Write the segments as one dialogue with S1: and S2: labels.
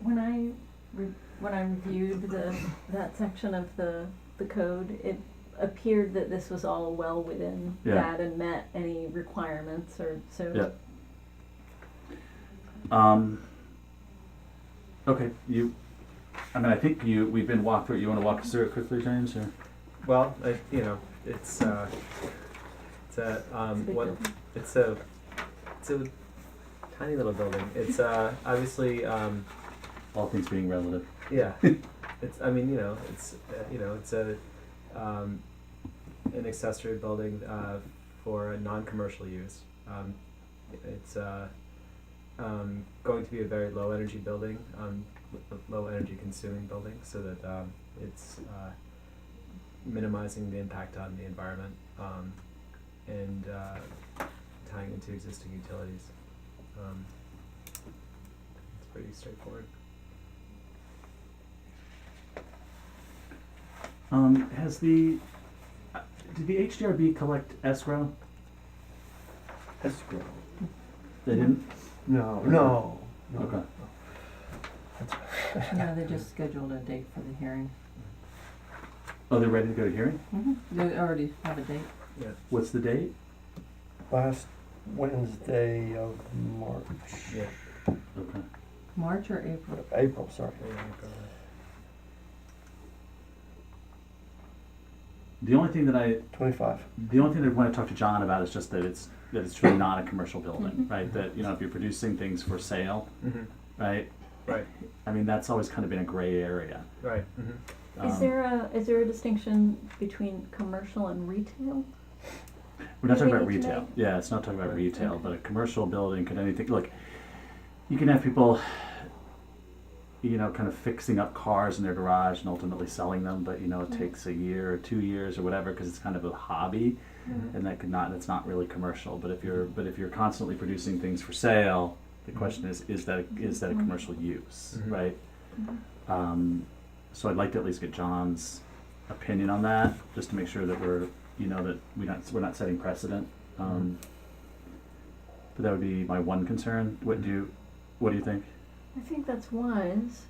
S1: when I re- when I reviewed the that section of the the code, it appeared that this was all well within
S2: Yeah.
S1: that and met any requirements or so.
S2: Yeah. Um, okay, you, I mean, I think you, we've been walked through, it. you wanna walk us through it quickly, James, or?
S3: Well, I, you know, it's uh, it's a
S1: It's a
S3: um,
S1: big
S3: what
S1: deal.
S3: it's a it's a tiny little building. It's uh, obviously um,
S2: All things being relative.
S3: yeah. It's I mean you know it's uh, you know it's a um, an accessory building uh, for a non-commercial use. Um, it's uh, um, going to be a very low energy building, um, l- low energy consuming building, so that um, it's uh, minimizing the impact on the environment um, and uh, tying into existing utilities. Um, it's pretty straightforward.
S2: Um, has the, uh, did the HDRB collect escrow?
S4: Escrow.
S2: They didn't?
S4: No, no. no.
S2: Okay.
S5: No, they just scheduled a date for the hearing.
S2: Oh, they're ready to go to hearing?
S1: Mm-hmm.
S5: They already have a date.
S3: Yeah.
S2: What's the date?
S4: Last Wednesday of March,
S3: Yeah.
S2: Okay.
S5: March or April?
S4: April, sorry.
S3: yeah, go ahead.
S2: The only thing that I,
S4: Twenty-five.
S2: the only thing that I wanna talk to John about is just that it's, that it's really not a commercial building,
S1: Mhm.
S2: right? That, you know, if you're producing things for sale,
S3: Mm-hmm.
S2: right?
S3: Right.
S2: I mean, that's always kind of been a gray area.
S3: Right. Mm-hmm.
S2: Um,
S1: Is there a is there a distinction between commercial and retail?
S2: We're not
S1: Do
S2: talking
S1: we
S2: about
S1: need to
S2: retail.
S1: make-
S2: Yeah, it's not talking about
S3: Right.
S2: retail, but a commercial building could anything, look, you can have people, you know, kind of fixing up cars in their garage and ultimately selling them, but you know, it
S1: Mhm.
S2: takes a year or two years or whatever, because it's kind of a hobby
S3: Mhm.
S2: and that could not, that's not really commercial, but if you're, but if you're constantly producing things for sale, the question is, is that, is that a
S1: Mhm.
S2: commercial use,
S3: Mhm.
S2: right? Um, so I'd like to at least get John's opinion on that, just to make sure that we're, you know, that we not, we're not setting precedent. Um,
S1: Mm-hmm.
S2: but that would be my one concern. What do you, what do you think?
S1: I think that's wise.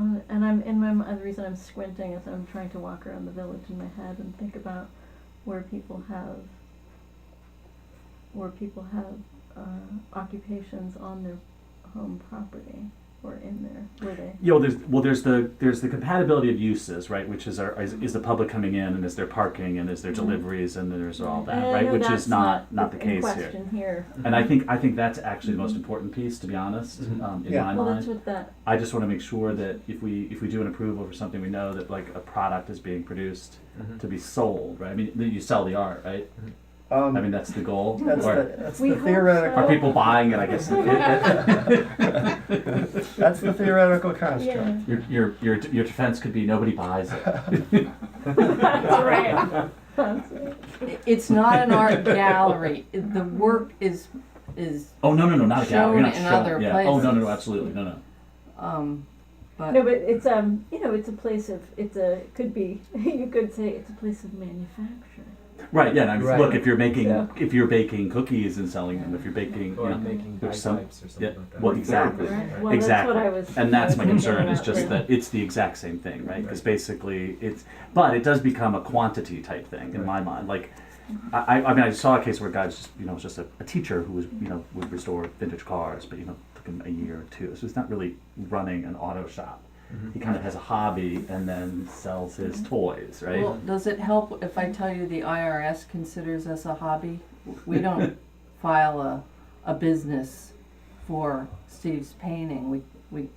S1: Uh, and I'm in my and the reason I'm squinting is I'm trying to walk around the village in my head and think about where people have where people have uh, occupations on their home property or in their where they
S2: You know, there's, well, there's the, there's the compatibility of uses, right? Which is our, is, is the public coming in and is there parking and is there
S1: Mhm.
S2: deliveries and there's all
S1: And
S2: that,
S1: I
S2: right?
S1: know
S2: Which
S1: Mm-hmm. that's
S2: is not, not the
S1: in
S2: case here.
S1: question Mm-hmm. here.
S2: And I think, I think that's actually the most important piece, to be honest,
S1: Mm-hmm.
S3: Mhm.
S2: um, in
S4: Yeah.
S2: my mind.
S1: Well, that's what that
S2: I just want to make sure that if we if we do an approval for something, we know that like a product is being produced
S3: Mhm.
S2: to be sold, right? I mean, that you sell the art, right?
S4: Um,
S2: I mean, that's the goal.
S4: that's
S2: or
S4: the, that's
S1: We
S4: the
S1: hope
S2: are
S4: theoretical,
S1: so.
S2: people buying it? I guess
S4: that's the theoretical construct.
S1: yeah.
S2: your your your your defense could be nobody buys it.
S1: that's right. That's right.
S5: I- It's not an art gallery. It- The work is, is,
S2: Oh no no no not a gallery. You're not
S5: Shown in
S2: showing-
S5: other
S2: yeah. Oh no no no
S5: places.
S2: absolutely no no.
S5: um,
S1: No,
S5: but,
S1: but it's um, you know, it's a place of it's a it could be you could say it's a place of manufacture.
S2: Right yeah. And I mean,
S3: Right.
S2: Look if you're making
S3: Yeah.
S2: if you're baking cookies and selling them, if you're baking
S3: Or
S2: you know,
S3: making
S2: there's
S3: bagpipes
S2: some-
S3: or something
S2: yeah,
S3: like that.
S2: well, exactly.
S1: Right.
S3: Right.
S1: Well, that's
S2: Exactly.
S1: what I was.
S2: And that's my
S1: I was
S2: concern, is
S1: thinking
S2: just
S1: about,
S2: that it's the exact same thing, right? Because
S3: Right.
S2: basically it's, but it does become a quantity type thing in my mind. Like, I, I I mean, I saw a case where a guy was just, you know, was just a, a teacher who was, you know, would restore vintage cars, but, you know, took him a year or two. So he's not really running an auto shop. He
S3: Mhm.
S2: kind of has a hobby and then sells his toys, right?
S5: well, does it help if I tell you the IRS considers us a hobby? We don't file a, a business for Steve's painting. We, we,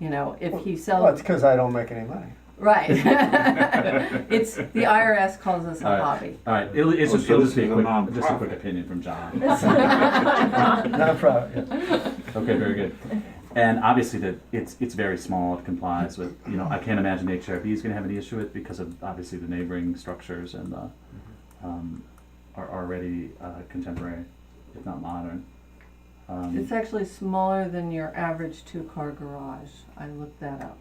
S5: you know, if he
S4: Well, it's
S5: sells,
S4: because I don't make any money.
S5: right. It's, the IRS calls us a
S2: Alright.
S5: hobby.
S2: All right, it'll, it's
S6: Oh,
S2: just,
S6: so
S2: it'll
S6: this
S2: just be a
S6: is a
S2: quick,
S6: nonprofit.
S2: just a quick opinion from John.
S4: Not proud. yeah.
S2: Okay, very good. And obviously, that it's it's very small. It complies with you know I can't imagine HRB is going to have any issue with because of obviously the neighboring structures and the um, are already uh, contemporary, if not modern. Um,
S5: It's actually smaller than your average two-car garage. I looked that up,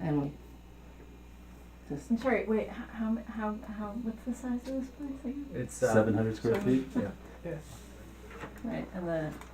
S5: and we just
S1: I'm sorry. Wait, h- how how how what's the size of this place again?
S3: It's uh,
S2: Seven hundred square
S1: So-
S2: feet.
S3: Yeah.
S5: right, and the